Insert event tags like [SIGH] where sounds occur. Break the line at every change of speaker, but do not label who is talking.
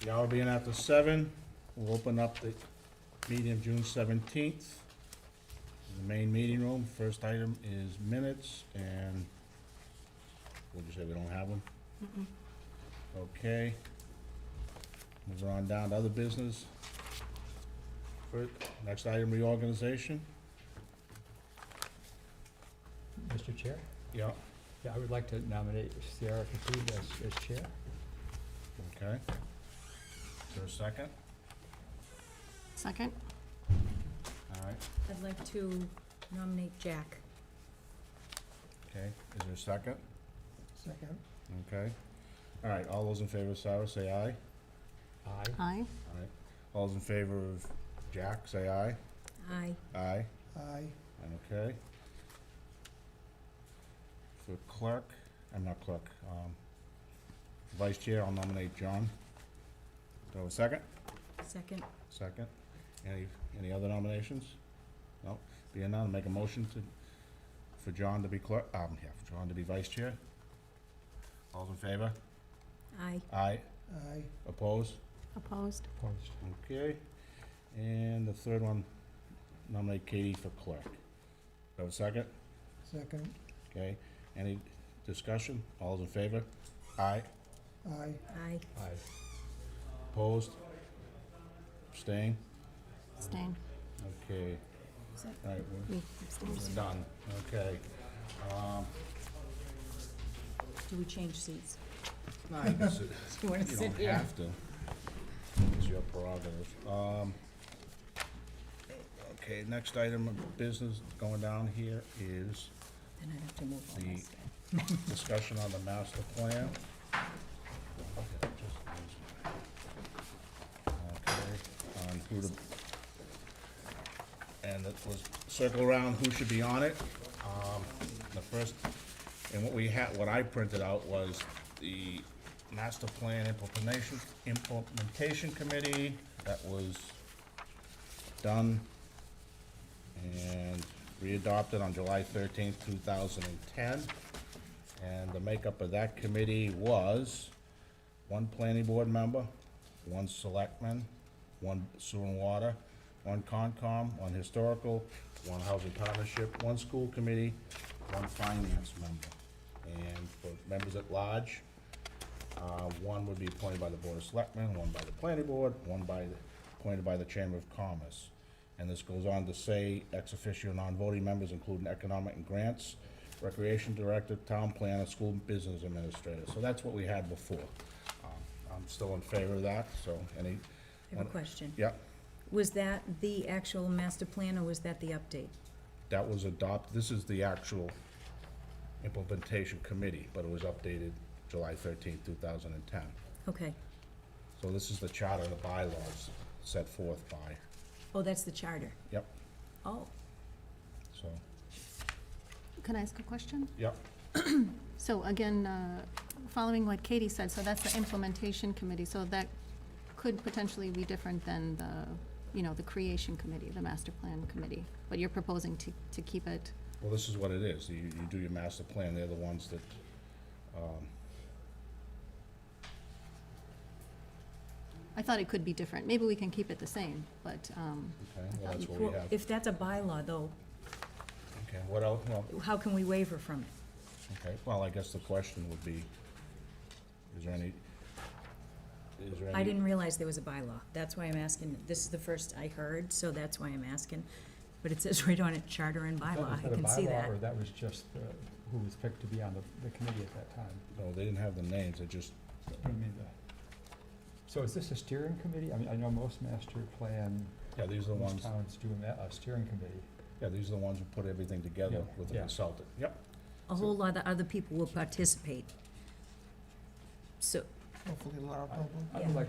The hour being after seven, we'll open up the meeting of June seventeenth. The main meeting room, first item is minutes, and would you say we don't have them? Okay. Moving on down to other business. Fir- Next item, reorganization.
Mr. Chair,
Yeah.
yeah, I would like to nominate Sierra Khatib as, as chair.
Okay. Is there a second?
Second?
All right,
I'd like to nominate Jack.
okay. Is there a second?
Second.
Okay. All right, all those in favor of Cyrus, say aye.
Aye.
Aye.
All right. All those in favor of Jack, say aye.
Aye.
Aye.
Aye.
Okay. For clerk, I'm not clerk, um, vice chair, I'll nominate John. Do I have a second?
Second.
Second. Any, any other nominations? No? Being none, make a motion to, for John to be clerk, um, yeah, for John to be vice chair. All's in favor?
Aye.
Aye.
Aye.
Opposed?
Opposed?
Opposed.
Okay. And the third one, nominate Katie for clerk. Do I have a second?
Second.
Okay, any discussion? All those in favor? Aye,
Aye.
Aye.
Aye.
opposed? Abstain?
Abstain.
Okay,
Is that-
all right, we're-
We abstain.
we're done, okay. Um,
Do we change seats?
nah, you [LAUGHS] can sit-
Do you want
you
to
don't
sit here?
have to. It's your prerogative. Um, okay, next item of business going down here is
Then I'd have to move on
The-
this.
discussion on the master plan. Okay, on Um, who to, and it was circle around who should be on it. Um, the first, and what we had, what I printed out was the master plan implementation, implementation committee that was done and readopted on July thirteenth, two thousand and ten. And the makeup of that committee was one planning board member, one selectman, one sewer and water, one Concom, one historical, one housing partnership, one school committee, one finance member. And for members at large, uh, one would be appointed by the Board of Selectmen, one by the Planning Board, one by, the- appointed by the Chamber of Commerce. And this goes on to say, ex officio non-voting members including economic and grants, recreation director, town planner, school business administrator. So that's what we had before. Um, I'm still in favor of that, so any,
I have a question.
uh, yeah,
Was that the actual master plan or was that the update?
that was adopted, this is the actual implementation committee, but it was updated July thirteenth, two thousand and ten.
Okay.
So this is the charter and the bylaws set forth by,
Oh, that's the charter.
yep,
Oh,
so,
Can I ask a question?
yep,
So again, uh, following what Katie said, so that's the implementation committee, so that could potentially be different than the, you know, the creation committee, the master plan committee. But you're proposing to, to keep it,
well, this is what it is, you, you do your master plan, they're the ones that, um,
I thought it could be different. Maybe we can keep it the same, but, um,
okay, well, that's what we
well,
have.
if that's a bylaw though,
Okay, what else, well,
how can we waiver from it?
okay, well, I guess the question would be, is there any, is there any?
I didn't realize there was a bylaw. That's why I'm asking. This is the first I heard, so that's why I'm asking. But it says [LAUGHS] right on it, charter and bylaw. I can see that.
Or that was just uh, who was picked to be on the, the committee at that time?
No, they didn't have the names, they just,
I mean, the, so is this a steering committee? I mean, I know most master plan,
yeah, these are the
most
ones,
towns do a, ma- a steering committee.
yeah, these are the ones who put everything together
Yeah,
with a
yeah.
consultant, yep.
A whole lot of other people will participate. So,
Hopefully a lot of
I-
people.
I
Yeah.
would like